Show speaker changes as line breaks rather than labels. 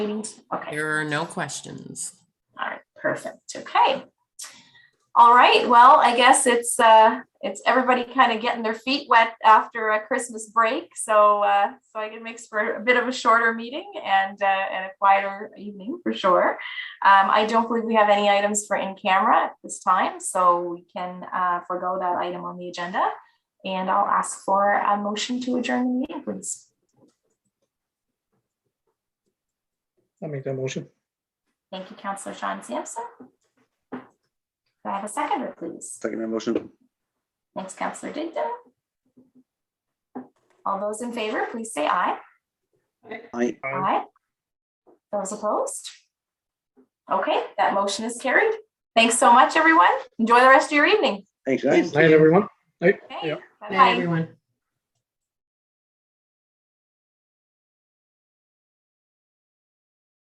meetings? Okay,
There are no questions.
all right, perfect, okay. All right, well, I guess it's, uh, it's everybody kind of getting their feet wet after a Christmas break. So, uh, so I can makes for a bit of a shorter meeting and, uh, and a quieter evening for sure. Um, I don't believe we have any items for in camera at this time, so we can, uh, forego that item on the agenda. And I'll ask for a motion to adjourn the meeting, please.
I'll make that motion.
Thank you, Councillor Sean Sampson. Do I have a seconder, please?
Second that motion.
Thanks, Councillor Digdon. All those in favor, please say aye.
Aye.
Aye.
Aye. Those opposed? Okay, that motion is carried. Thanks so much, everyone. Enjoy the rest of your evening.
Thanks, guys.
Night, everyone.
Okay,
Yep.
bye-bye.
Night, everyone.